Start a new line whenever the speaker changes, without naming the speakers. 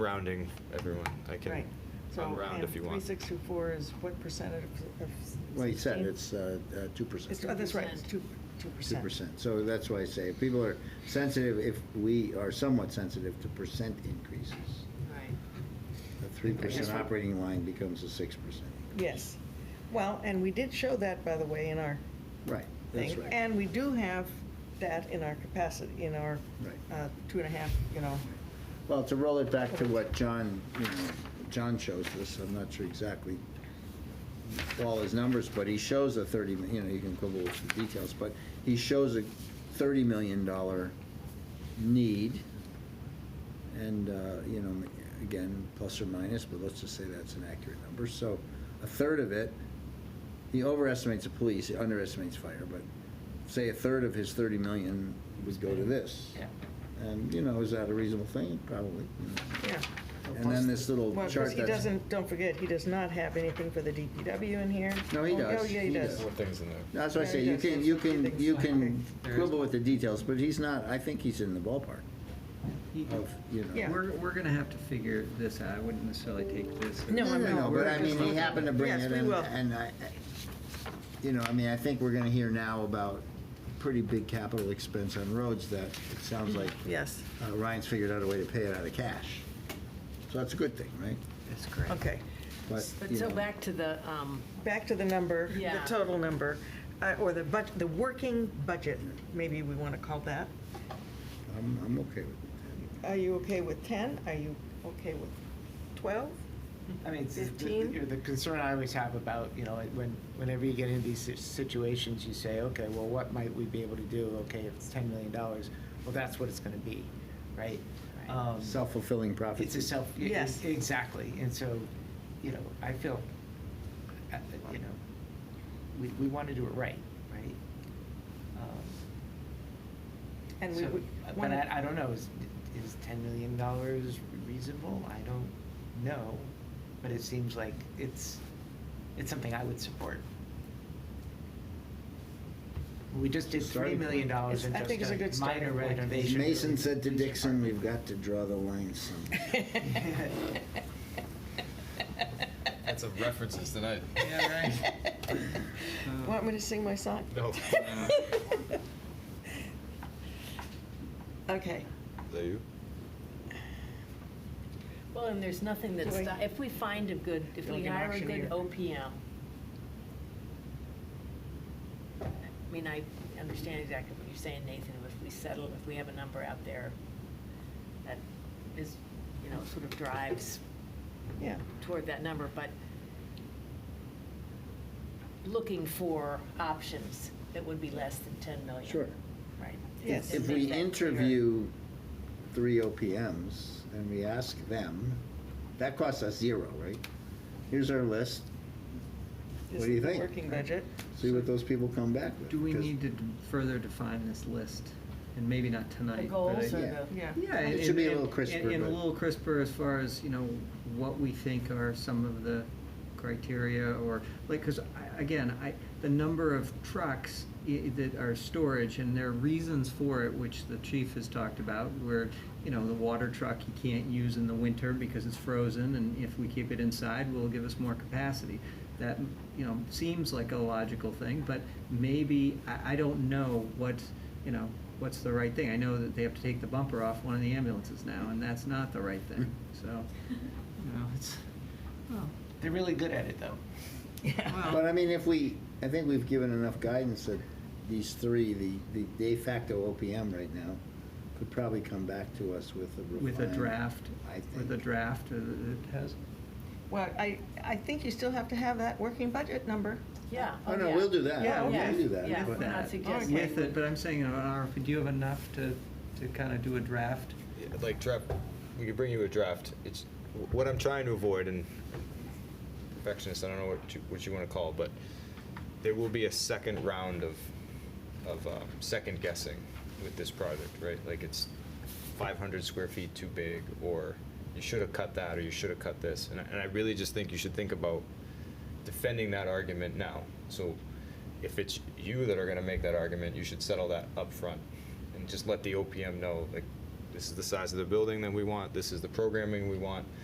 rounding everyone. I can
Right. So,
unround
and
if you want.
3624 is what percentage of? of
Well, he said
16?
it's uh, uh, 2%.
It's, oh, that's right, it's 2%.
2%. So that's why I say, if people are sensitive, if we are somewhat sensitive to percent increases,
Right.
a 3% operating line becomes a 6%. increase.
Yes. Well, and we did show that, by the way, in our
Right, that's
thing.
right.
And we do have that in our capacity, in our
Right.
uh, two and a half, you know.
Well, to roll it back to what John, you know, John shows us, I'm not sure exactly all his numbers, but he shows a 30, mi- you know, you can quibble with the details, but he shows a $30 million need. And, uh, you know, again, plus or minus, but let's just say that's an accurate number. So a third of it, he overestimates the police, he underestimates fire, but say a third of his 30 million would go to this. And, you know, is that a reasonable thing? Probably. you know.
Yeah.
And then this little
Well, because
chart
he
that's.
doesn't, don't forget, he does not have anything for the DPW in here.
No, he
Oh,
does.
Oh, yeah, he
He
does.
does.
More things in there.
That's why I
Yeah,
say,
he
you
does.
can, you can, you can
There is-
quibble with the details, but he's not, I think he's in the ballpark
You-
of, you know.
Yeah.
We're, we're gonna have to figure this out. I wouldn't necessarily take this.
No,
No,
I'm
no,
not.
no, but I mean, he happened to bring
Yes,
it
we
in,
will.
and I, you know, I mean, I think we're gonna hear now about pretty big capital expense on roads that it
Mm-hmm.
sounds like
Yes,
uh, Ryan's figured out a way to pay it out of cash. So that's a good thing, right?
That's correct.
okay.
But,
But
you
so
know,
back to the, um,
Back to the number, the
Yeah.
total number, uh, or the budget, the working budget, maybe we want to call that.
I'm, I'm okay with it.
Are you okay with 10? Are you okay with 12?
I mean, it's- the- the,
15?
you know, the concern I always have about, you know, when, whenever you get into these si- situations, you say, okay, well, what might we be able to do? Okay, if it's ten million dollars, well, that's what it's gonna be, right? Um,
Self-fulfilling
It's
prophecy.
a self, e-
Yes.
exactly, and so, you know, I feel, uh, you know, we, we wanna do it right, right? Um,
And we
so,
would
uh,
want
But I,
to,
I don't know, is, is ten million dollars reasonable? I don't know, but it seems like it's, it's something I would support. We just did three
Starting point.
million dollars
It's-
in
I think
just
it's a
a
good
minor
starting point.
renovation.
Mason
for the
said to
police
Dixon,
department.
we've got to draw the line somewhere.
Had some references tonight.
yeah,
want me to sing my song?
No.
Okay,
Is that you?
Well, and there's nothing that's,
Wait.
if we find a good, if
Like
we
an
hire a
auctioneer.
good OPM, I mean, I understand exactly what you're saying, Nathan, if we settle, if we have a number out there that is, you know, sort of drives
yeah.
toward that number, but looking for options that would be less than 10 million.
Sure.
Right.
Yes.
If
And make
we
that clear.
interview three OPMs and we ask them, that costs us zero, right? Here's our list,
This
What do you
is the
think?
Working budget.
see what those people come back with.
Do we
'cause
need to d- further define this list? And maybe not
The
tonight. but
goals
I-
or
Yeah.
the.
Yeah.
Yeah.
It
and-
should be a
and-
little crisper,
and- And a
but-
little crisper as far as, you know, what we think are some of the criteria or, like, because again, I, the number of trucks i- that are storage and there are reasons for it, which the chief has talked about, where, you know, the water truck you can't use in the winter because it's frozen and if we keep it inside, will give us more capacity. That, you know, seems like a logical thing, but maybe, I, I don't know what, you know, what's the right thing? I know that they have to take the bumper off one of the ambulances now, and that's not the right thing. So, you know, it's,
They're really good at it, though.
But I mean, if we, I think we've given enough guidance that these three, the, the de facto OPM right now, could probably come back to us with a refined.
with a draft,
I
with a
think.
draft that has,
Well, I, I think you still have to have that working budget number.
Yeah.
Oh, no, we'll do that.
Yeah,
We'll
okay.
do that.
Yeah,
but-
we're not suggesting.
with it, but I'm saying, you know, an RFP, do you have enough to, to kind of do a draft?
Yeah, Like draft, we could bring you a draft. It's what I'm trying to avoid, and perfectionist. I don't know what you, what you want to call, it, but there will be a second round of of um, second guessing with this project, right? Like it's 500 square feet too big, or you should have cut that, or you should have cut this. And I, and I really just think you should think about defending that argument now. So if it's you that are going to make that argument, you should settle that up front and just let the OPM know, like, this this is the size of the building that we want, this is the programming we want,